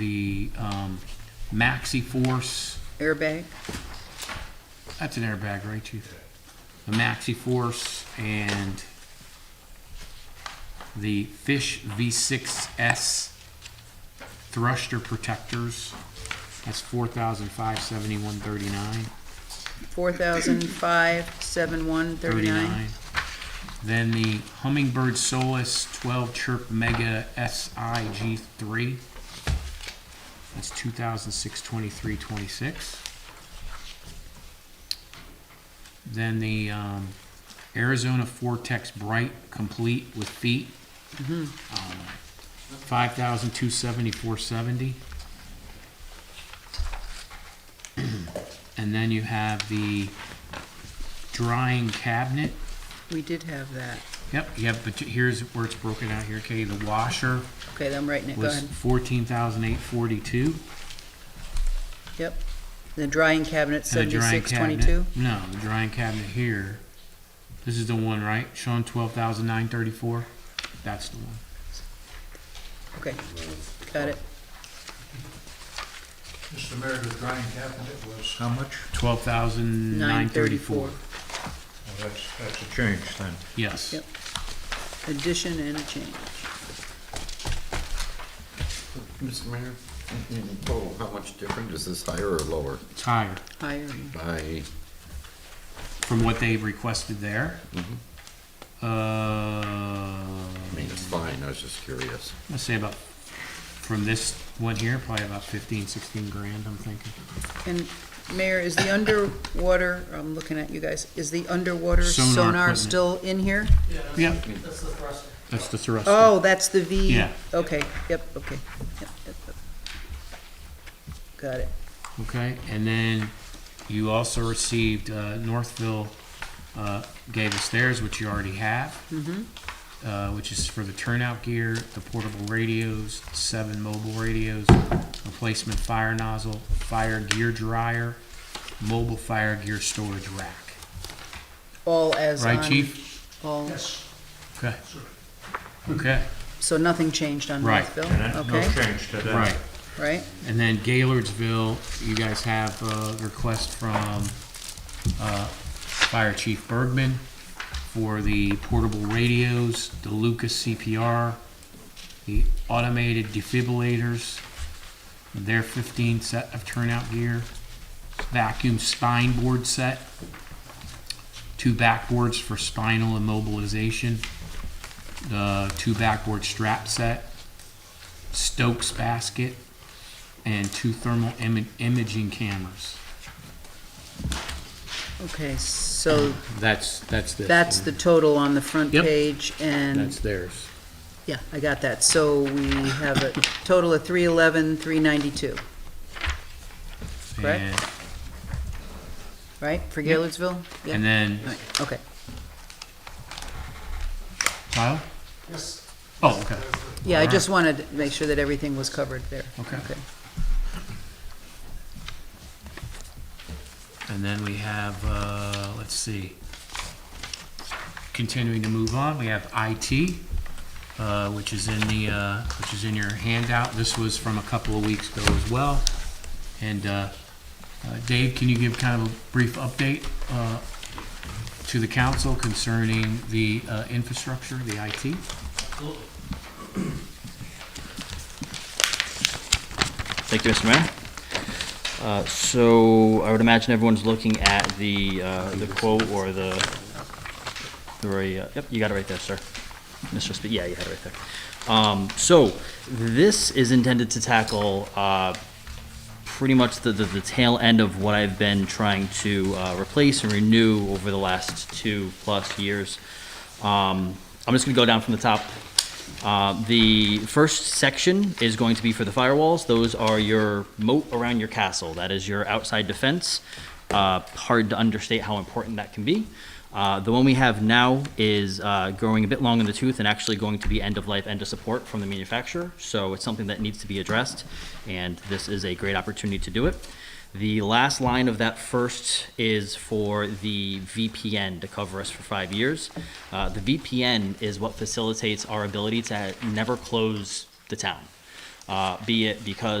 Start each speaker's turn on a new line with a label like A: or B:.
A: the um, Maxi Force.
B: airbag.
A: That's an airbag, right, Chief? The Maxi Force and the Fish V6S Thruster Protectors. That's four thousand five seventy-one thirty-nine.
B: Four thousand five seven one thirty nine.
A: 39. Then the Hummingbird Solus 12 Chirp Mega SIG3. That's 2006-23-26. Then the um, Arizona Vortex Bright Complete with Feet. Um, 5,274.70. And then you have the drying cabinet.
B: We did have that.
A: Yep, yep, but here's where it's broken out here, okay, the washer
B: Okay, I'm writing it, go
A: was
B: ahead.
A: fourteen thousand eight forty-two.
B: Yep. The drying cabinet,
A: And the drying
B: seventy-six twenty-two.
A: cabinet, no, the drying cabinet here, this is the one, right, Sean, twelve thousand nine thirty-four, that's the one.
B: Okay, got it.
C: Mr. Mayor, the drying cabinet was how much?
A: Twelve thousand
B: Nine
A: nine
B: thirty-four.
A: thirty-four,
C: Well, that's, that's a change then.
A: yes.
B: Yep. Addition and a change.
D: Mr. Mayor, in total, Mm-hmm. Oh, how much different is this higher or lower
A: It's higher
B: Higher.
D: by,
A: from what they've requested there. Uh,
D: I mean, it's fine, I was just curious.
A: let's say about, from this one here, probably about fifteen, sixteen grand, I'm thinking.
B: And Mayor, is the underwater, I'm looking at you guys, is the underwater
A: Sonar
B: sonar
A: equipment.
B: still in here?
A: Yep. That's the thruster.
B: Oh, that's the V.
A: Yeah.
B: Okay, yep, okay. Yep, yep, yep. Got it.
A: Okay, and then you also received, uh, Northville, uh, gave us theirs, which you already have. Uh, which is for the turnout gear, the portable radios, seven mobile radios, replacement fire nozzle, fire gear dryer, mobile fire gear storage rack.
B: All as on.
A: Right, chief?
B: All,
C: Yes.
A: Okay. Okay,
B: so nothing changed on
A: Right.
B: Northville?
C: And that- no
B: Okay,
C: change to that.
A: right.
B: right?
A: And then Gaylordsville, you guys have a request from uh, Fire Chief Bergman for the portable radios, the Lucas CPR, the automated defibrillators, their 15 set of turnout gear, vacuum spine board set, two backboards for spinal immobilization, the two backboard strap set, Stokes basket, and two thermal im- imaging cameras.
B: Okay, so
A: That's, that's this.
B: that's the total on the front
A: Yep.
B: page, and,
A: That's theirs.
B: yeah, I got that. So we have a total of three eleven, three ninety-two, Correct.
A: And,
B: right, for Gaylordsville? Yeah.
A: and then,
B: All right, Okay,
A: Kyle?
E: Yes,
A: Oh, okay.
B: yeah, I just wanted to make sure that everything was covered there.
A: Okay.
B: Okay.
A: And then we have, uh, let's see. Continuing to move on, we have IT, uh, which is in the, uh, which is in your handout. This was from a couple of weeks ago as well. And, uh, uh, Dave, can you give kind of a brief update, uh, to the council concerning the, uh, infrastructure, the IT?
E: absolutely.
F: Thank you, Mr. Mayor. Uh, So I would imagine everyone's looking at the, uh, the quote or the, the very, uh, yep, you got it right there, sir. Mr. Spe, yeah, you had it right there. Um, So this is intended to tackle uh, pretty much the, the the tail end of what I've been trying to uh, replace and renew over the last two-plus years. Um, I'm just going to go down from the top. Uh, The first section is going to be for the firewalls. Those are your moat around your castle. That is your outside defense. Uh, Hard to understate how important that can be. Uh, The one we have now is uh, growing a bit long in the tooth and actually going to be end of life, end of support from the manufacturer. So it's something that needs to be addressed, and this is a great opportunity to do it. The last line of that first is for the VPN to cover us for five years. Uh, the VPN is what facilitates our ability to never close the town, uh, be it because